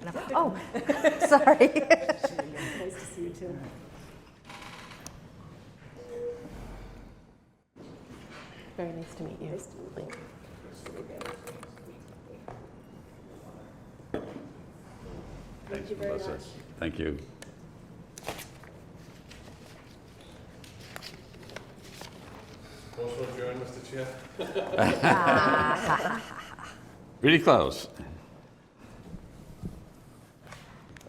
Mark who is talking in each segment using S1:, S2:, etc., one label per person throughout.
S1: And I'm- Oh, sorry.
S2: Nice to see you too.
S3: Very nice to meet you.
S2: Nice to meet you. Thank you very
S4: Melissa.
S2: much.
S4: Thank you.
S5: Motion adjourned, Mr. Chair.
S4: Really close.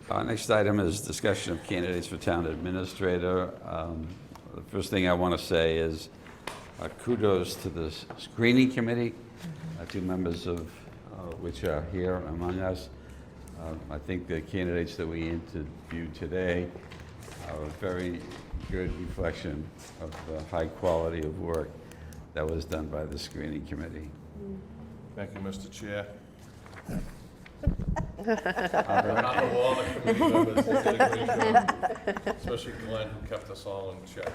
S4: Our Uh, next item is discussion of candidates for town administrator. Um, The first thing I want to say is uh, kudos to the screening committee, uh, two members of uh, which are here among us. Um, I think the candidates that we interviewed today are a very good reflection of the high quality of work that was done by the screening committee.
S5: Thank you, Mr. Chair.
S4: Are there
S5: Not the wall, the committee members did a great job. Especially Glenn, who kept us all in check.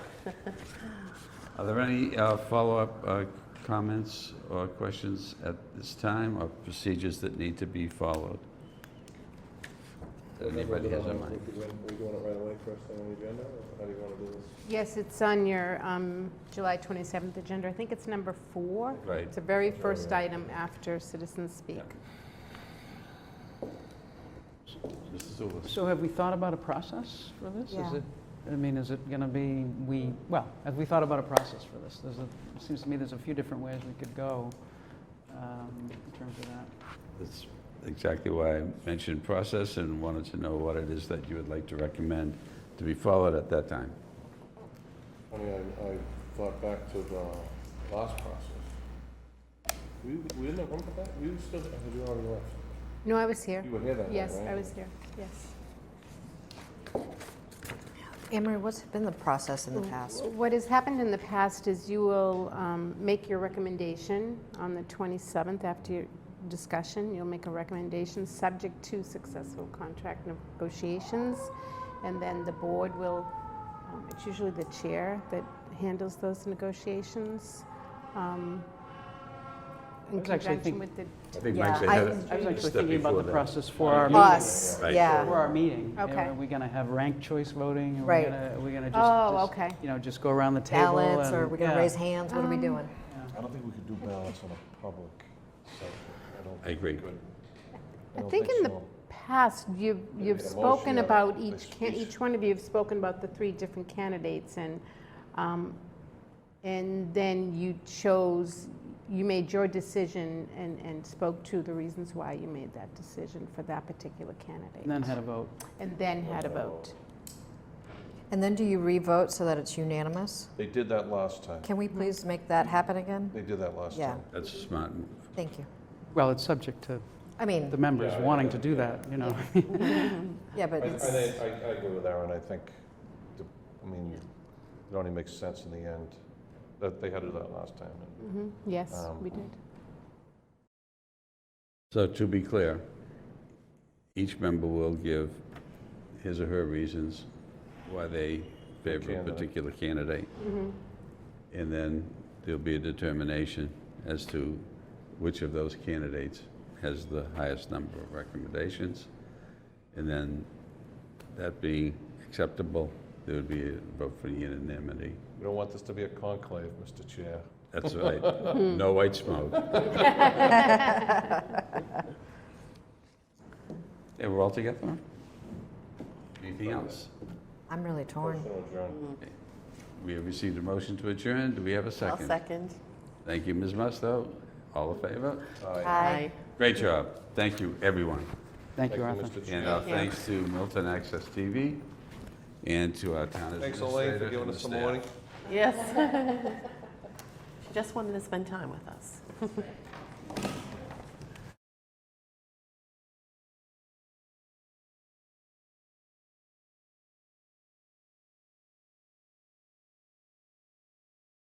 S4: Are there any uh, follow-up uh, comments or questions at this time, or procedures that need to be followed? That anybody has in mind?
S5: Are we doing it right away first thing on the agenda, or how do you want to do this?
S3: Yes, it's on your um, July 27th agenda. I think it's number four.
S4: Right.
S3: It's the very first item after citizens speak.
S4: Mr. Zulus.
S6: So have we thought about a process for this? Is
S1: Yeah.
S6: it, I mean, is it going to be, we, well, have we thought about a process for this? There's a, it seems to me there's a few different ways we could go um, in terms of that.
S4: That's exactly why I mentioned process and wanted to know what it is that you would like to recommend to be followed at that time.
S5: I mean, I, I thought back to the last process. We, we didn't have one for that? We were still, you already left.
S3: No, I was here.
S5: You were here that night, right?
S3: Yes, I was here. Yes.
S1: Emery, what's been the process
S6: Mm.
S1: in the past?
S3: What has happened in the past is you will um, make your recommendation on the 27th after your discussion. You'll make a recommendation subject to successful contract negotiations. And then the board will, um, it's usually the chair that handles those negotiations. um,
S6: I
S3: In
S6: was actually
S3: conjunction
S6: think-
S3: with the,
S4: I think
S1: Yeah,
S4: Mike said
S1: I-
S4: had a
S6: I was actually
S4: step
S6: thinking about
S4: before
S6: the
S4: that.
S6: process for our meeting.
S1: Us,
S4: Right.
S6: For
S1: yeah.
S6: our meeting.
S3: Okay.
S6: Are we going to have ranked choice voting? Are we
S1: Right.
S6: gonna- Are we going to just?
S3: Oh,
S6: just,
S3: okay.
S6: You know, just go around the table?
S1: Ballots, or
S6: and-
S1: we're going
S6: yeah.
S1: to
S6: Um,
S1: raise hands, what are we doing?
S5: I don't think we could do balance on a public session. I don't
S4: I agree.
S5: think we could.
S3: I
S5: don't
S3: think in the
S5: so.
S3: past, you've, you've
S5: made a
S3: spoken
S5: motion, yeah,
S3: about
S5: they
S3: each, can-
S5: speak.
S3: each one of you have spoken about the three different candidates and, um, and then you chose, you made your decision and, and spoke to the reasons why you made that decision for that particular
S6: And then
S3: candidate.
S6: had a vote.
S3: And then had a vote.
S1: And then do you re-vote so that it's unanimous?
S5: They did that last time.
S1: Can we please make that happen again?
S5: They did that last
S1: Yeah.
S5: time.
S4: That's a smart. move.
S1: Thank you.
S6: Well, it's subject to
S1: I mean,
S6: the members
S5: Yeah,
S6: wanting
S5: yeah,
S6: to do that, you know?
S1: yeah, but
S5: I, I,
S1: it's,
S5: think- I I agree with Aaron, I think, the- I mean, it only makes sense in the end, that they had to do that last time. and,
S3: Mhm. Yes,
S5: Um,
S3: we did.
S4: So to be clear, each member will give his or her reasons why they favor a
S5: Candidate.
S4: particular candidate. And then there'll be a determination as to which of those candidates has the highest number of recommendations. And then that being acceptable, there would be a vote for unanimity.
S5: We don't want this to be a conclave, Mr. Chair.
S4: That's right. No white smoke. Yeah, we're all together? Anything else?
S1: I'm really torn.
S5: Motion adjourned.
S4: We have received a motion to adjourn. Do we have a 2nd
S2: second.
S4: Thank you, Ms. Musto. All in favor?
S2: Aye.
S4: Great job. Thank you, everyone.
S6: Thank you, Arthur.
S5: Mr. Chair.
S4: And our thanks to Milton Access TV and to our town
S5: Thanks,
S4: administrator.
S5: Elaine, for
S4: and
S5: giving
S4: the
S5: us some
S4: staff.
S5: warning.
S2: Yes. She just wanted to spend time with us.